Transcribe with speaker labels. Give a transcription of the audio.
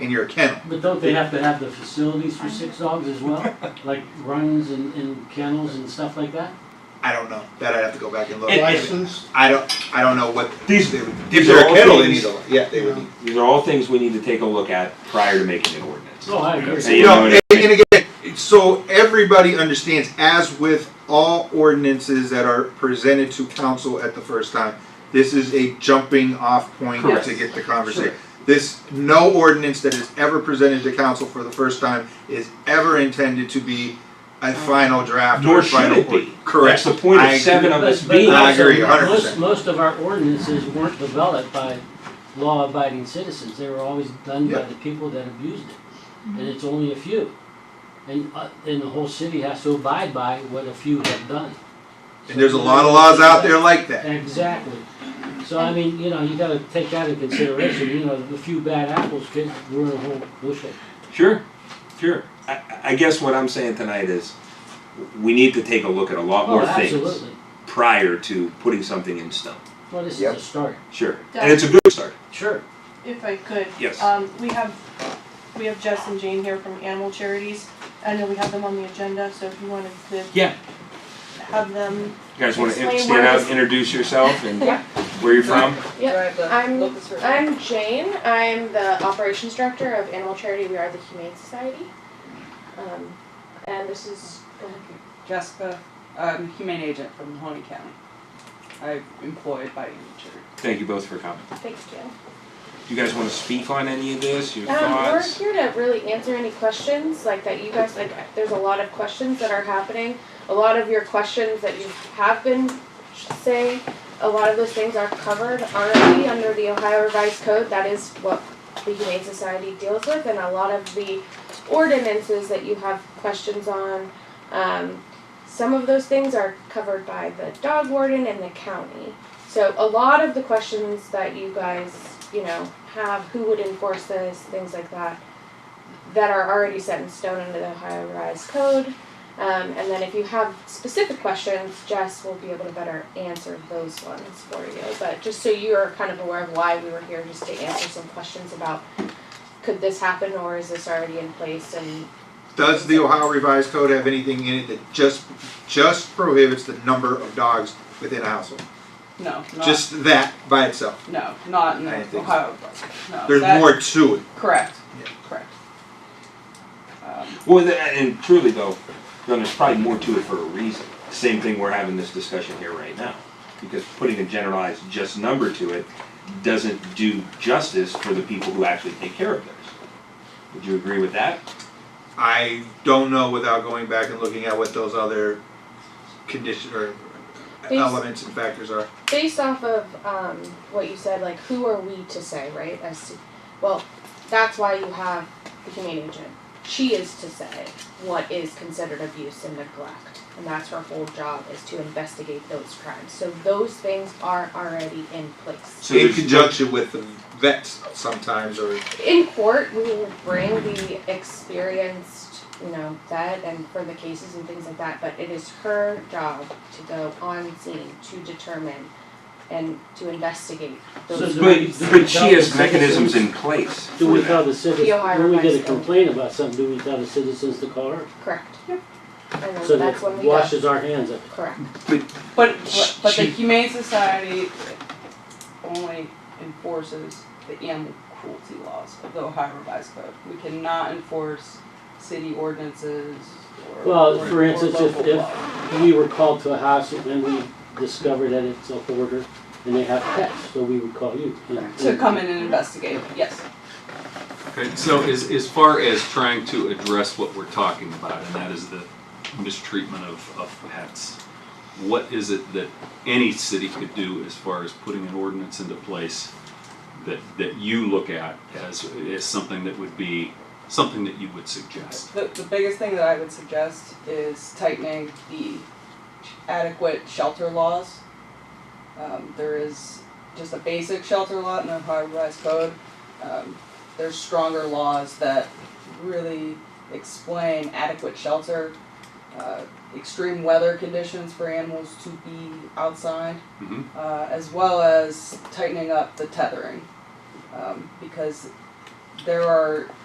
Speaker 1: in your kennel.
Speaker 2: But don't they have to have the facilities for six dogs as well? Like runs and, and kennels and stuff like that?
Speaker 1: I don't know. That I'd have to go back and look.
Speaker 3: Licensed?
Speaker 1: I don't. I don't know what
Speaker 4: These-
Speaker 1: They would, if
Speaker 4: these
Speaker 1: they're
Speaker 4: are
Speaker 1: a
Speaker 4: all
Speaker 1: kennel, they need
Speaker 4: things-
Speaker 1: a. Yeah, they would. Need.
Speaker 4: These are all things we need to take a look at prior to making an ordinance.
Speaker 2: Oh, I agree.
Speaker 4: So you
Speaker 1: No,
Speaker 4: know what
Speaker 1: and,
Speaker 4: I mean?
Speaker 1: and again, so everybody understands, as with all ordinances that are presented to council at the first time, this is a jumping off point
Speaker 4: Correct.
Speaker 1: to get the conversation. This, no ordinance that is ever presented to council for the first time is ever intended to be a final draft or
Speaker 4: Nor should
Speaker 1: final.
Speaker 4: it
Speaker 1: ord-
Speaker 4: be.
Speaker 1: Correct.
Speaker 4: That's the point
Speaker 1: I
Speaker 4: of seven of us
Speaker 2: But- but
Speaker 4: being.
Speaker 1: I
Speaker 2: also,
Speaker 1: agree, 100%.
Speaker 2: Most, most of our ordinances weren't developed by law-abiding citizens, they were always done by
Speaker 1: Yeah.
Speaker 2: the people that abused it. And it's only a few. And, uh, and the whole city has to abide by what a few have done.
Speaker 1: And there's a lot of laws out there like that.
Speaker 2: Exactly. So I mean, you know, you gotta take that in consideration, you know, the few bad apples could ruin a whole bushel.
Speaker 4: Sure, sure. I, I guess what I'm saying tonight is we need to take a look at a lot
Speaker 2: Oh,
Speaker 4: more things
Speaker 2: absolutely.
Speaker 4: prior to putting something in stone.
Speaker 2: Well, this is
Speaker 1: Yep.
Speaker 2: a start,
Speaker 4: Sure. And it's a good start.
Speaker 2: sure.
Speaker 5: If I could.
Speaker 4: Yes.
Speaker 6: Uh,
Speaker 5: Um, we have, we have Jess and Jane here from Animal Charities. I know we have them on the agenda, so if you wanted to
Speaker 4: Yeah.
Speaker 5: have them,
Speaker 4: You guys want to
Speaker 5: Explain
Speaker 4: stand
Speaker 5: why
Speaker 4: out,
Speaker 5: this-
Speaker 4: introduce yourself and
Speaker 7: Yeah.
Speaker 4: where you're from?
Speaker 7: Yeah, I'm-
Speaker 6: I'm.
Speaker 7: I'm Jane. I'm the operations director of Animal Charity We Are the Humane Society. Um, and this is. go ahead.
Speaker 6: Jessica, I'm a humane agent from Mahoney County. I'm employed by Animal Charity.
Speaker 4: Thank you both for coming.
Speaker 7: Thanks, Jan.
Speaker 4: You guys want to speak on any of this, your
Speaker 7: Um, we're
Speaker 4: thoughts?
Speaker 7: here to really answer any questions like that you guys, like, there's a lot of questions that are happening. A lot of your questions that you have been saying, a lot of those things are covered already under the Ohio Revised Code. That is what the Humane Society deals with and a lot of the ordinances that you have questions on. Um, some of those things are covered by the dog warden and the county. So a lot of the questions that you guys, you know, have, who would enforce this, things like that, that are already set in stone under the Ohio Revised Code. Um, and then if you have specific questions, Jess will be able to better answer those ones for you. But just so you are kind of aware of why we were here, just to answer some questions about could this happen or is this already in place and
Speaker 1: Does the Ohio Revised Code have anything in it that just, just prohibits the number of dogs within a household?
Speaker 6: No, not,
Speaker 1: Just that by itself?
Speaker 6: no, not in
Speaker 1: I didn't think so.
Speaker 6: Ohio, no.
Speaker 1: There's
Speaker 6: that-
Speaker 1: more to it.
Speaker 6: Correct,
Speaker 1: Yeah.
Speaker 6: correct. Um,
Speaker 4: Well, th- and truly though, then there's probably more to it for a reason. Same thing we're having this discussion here right now. Because putting a generalized just number to it doesn't do justice for the people who actually take care of theirs. Would you agree with that?
Speaker 1: I don't know without going back and looking at what those other condition or
Speaker 7: These-
Speaker 1: elements and factors are.
Speaker 7: based off of um, what you said, like who are we to say, right? As to, well, that's why you have the humane agent. She is to say what is considered abuse and neglect, and that's her whole job is to investigate those crimes. So those things are already in place.
Speaker 4: So
Speaker 1: In
Speaker 4: there's-
Speaker 1: conjunction with the vets sometimes or
Speaker 7: In court, we will bring the experienced, you know, vet and for the cases and things like that. But it is her job to go on scene to determine and to investigate those.
Speaker 2: So do we-
Speaker 4: But,
Speaker 2: do we
Speaker 4: but
Speaker 2: tell
Speaker 4: she has
Speaker 2: the
Speaker 4: mechanisms
Speaker 2: citizens-
Speaker 4: in place.
Speaker 2: Do we
Speaker 4: for that.
Speaker 2: tell the citizens,
Speaker 7: The Ohio
Speaker 2: when we get a
Speaker 7: Revised Code.
Speaker 2: complaint about something, do we tell the citizens to call her?
Speaker 7: Correct.
Speaker 6: Yep.
Speaker 7: And then
Speaker 2: So
Speaker 7: that's
Speaker 2: that
Speaker 7: when we go.
Speaker 2: washes our hands of it.
Speaker 7: Correct.
Speaker 6: But, but- but the
Speaker 4: She-
Speaker 6: Humane Society only enforces the animal cruelty laws of the Ohio Revised Code. We cannot enforce city ordinances or.
Speaker 2: Well,
Speaker 6: or-
Speaker 2: for
Speaker 6: or
Speaker 2: instance, if-
Speaker 6: local
Speaker 2: if-
Speaker 6: laws.
Speaker 2: We were called to a house and then we discovered that it's a hoarder and they have pets, so we would call you. And-
Speaker 6: To come in and investigate, yes.
Speaker 8: Okay, so as, as far as trying to address what we're talking about, and that is the mistreatment of, of pets, what is it that any city could do as far as putting an ordinance into place that, that you look at as, as something that would be, something that you would suggest?
Speaker 6: The, the biggest thing that I would suggest is tightening the adequate shelter laws. Um, there is just a basic shelter law in the Ohio Revised Code. Um, there's stronger laws that really explain adequate shelter, uh, extreme weather conditions for animals to be outside
Speaker 8: Mhm.
Speaker 6: uh, as well as tightening up the tethering. Um, because there are